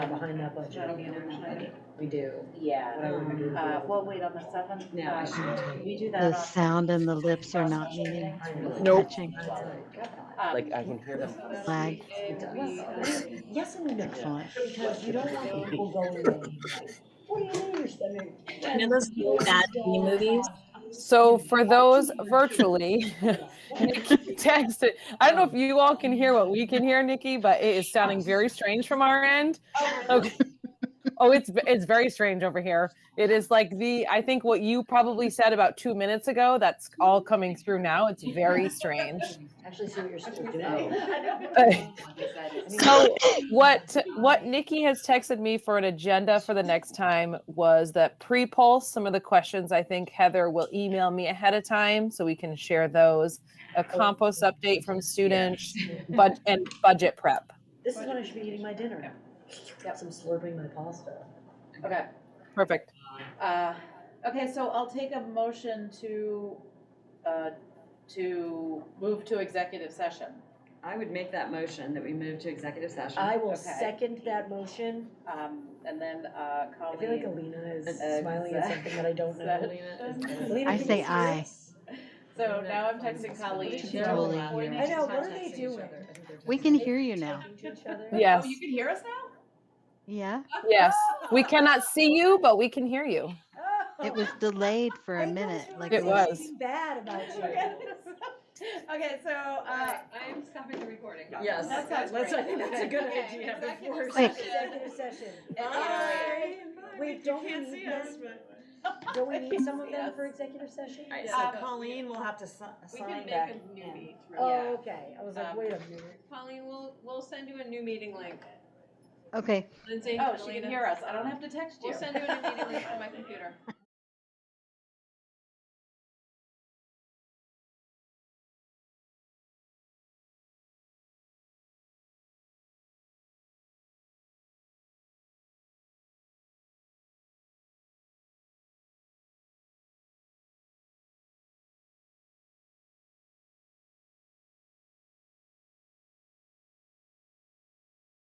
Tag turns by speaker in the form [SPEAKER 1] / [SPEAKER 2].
[SPEAKER 1] behind that budget.
[SPEAKER 2] That'll be in our budget.
[SPEAKER 1] We do. What
[SPEAKER 3] Yeah.
[SPEAKER 1] I would do.
[SPEAKER 2] Uh, we'll wait on the seventh.
[SPEAKER 1] No, I shouldn't tell you.
[SPEAKER 2] We do
[SPEAKER 4] The
[SPEAKER 2] that on.
[SPEAKER 4] sound and the lips are not meeting,
[SPEAKER 1] I know.
[SPEAKER 4] Nope. touching.
[SPEAKER 1] I know.
[SPEAKER 2] um,
[SPEAKER 3] uh,
[SPEAKER 5] Like, I can hear them.
[SPEAKER 4] flag,
[SPEAKER 1] It does. Yes and no,
[SPEAKER 4] excellent.
[SPEAKER 1] because you don't want people going in. What do you mean you're spending?
[SPEAKER 6] You know those bad B movies?
[SPEAKER 7] So for those virtually, Nikki texted. I don't know if you all can hear what we can hear, Nikki, but it is sounding very strange from our end. Okay. Oh, it's it's very strange over here. It is like the I think what you probably said about two minutes ago. That's all coming through now. It's very strange.
[SPEAKER 1] Actually, see what you're supposed to do.
[SPEAKER 2] Oh.
[SPEAKER 7] So what what Nikki has texted me for an agenda for the next time was that pre-pulse some of the questions I think Heather will email me ahead of time so we can share those. A compost update from students, but and budget prep.
[SPEAKER 1] This is when I should be eating my dinner. Got some slurping my pasta.
[SPEAKER 2] Okay,
[SPEAKER 7] Perfect.
[SPEAKER 2] uh, okay, so I'll take a motion to, uh, to move to executive session.
[SPEAKER 3] I would make that motion that we move to executive session.
[SPEAKER 1] I will
[SPEAKER 2] Okay.
[SPEAKER 1] second that motion.
[SPEAKER 2] Um, and then, uh,
[SPEAKER 1] I feel like
[SPEAKER 2] Colleen.
[SPEAKER 1] Alina is smiling at something that I don't know.
[SPEAKER 2] know.
[SPEAKER 1] Alina,
[SPEAKER 4] I
[SPEAKER 1] can you
[SPEAKER 4] say
[SPEAKER 1] see
[SPEAKER 4] aye.
[SPEAKER 1] this?
[SPEAKER 2] So now I'm texting Colleen.
[SPEAKER 4] She's Totally.
[SPEAKER 1] I
[SPEAKER 4] I
[SPEAKER 1] know, what are they doing?
[SPEAKER 4] We can hear you now.
[SPEAKER 7] Yes.
[SPEAKER 2] Oh, you can hear us now? Oh.
[SPEAKER 4] Yeah,
[SPEAKER 7] Yes. We cannot see you, but we can hear you.
[SPEAKER 4] it was delayed for a minute, like.
[SPEAKER 7] It
[SPEAKER 4] we-
[SPEAKER 7] was.
[SPEAKER 1] Bad about
[SPEAKER 2] Okay,
[SPEAKER 1] you.
[SPEAKER 2] Okay, so, uh,
[SPEAKER 8] I'm stopping the recording.
[SPEAKER 3] Yes.
[SPEAKER 2] That sounds
[SPEAKER 3] Let's- I
[SPEAKER 2] great.
[SPEAKER 3] think that's a good
[SPEAKER 8] Okay,
[SPEAKER 3] idea
[SPEAKER 8] executive
[SPEAKER 3] before.
[SPEAKER 4] Quick.
[SPEAKER 1] Executive session.
[SPEAKER 2] Bye.
[SPEAKER 1] Wait, don't we need them? Don't we need some of them for executive session?
[SPEAKER 3] All right,
[SPEAKER 2] Um,
[SPEAKER 3] so Colleen will have to si-
[SPEAKER 8] We can
[SPEAKER 3] sign
[SPEAKER 8] make
[SPEAKER 3] back.
[SPEAKER 8] a new
[SPEAKER 3] in.
[SPEAKER 8] meeting.
[SPEAKER 1] Oh, okay. I was like,
[SPEAKER 8] Um,
[SPEAKER 1] wait a minute.
[SPEAKER 8] Colleen, we'll, we'll send you a new meeting link.
[SPEAKER 4] Okay,
[SPEAKER 8] Lindsay.
[SPEAKER 2] oh, she can
[SPEAKER 8] Elena.
[SPEAKER 2] hear us. I don't have to text you.
[SPEAKER 8] We'll send you a new meeting link on my computer.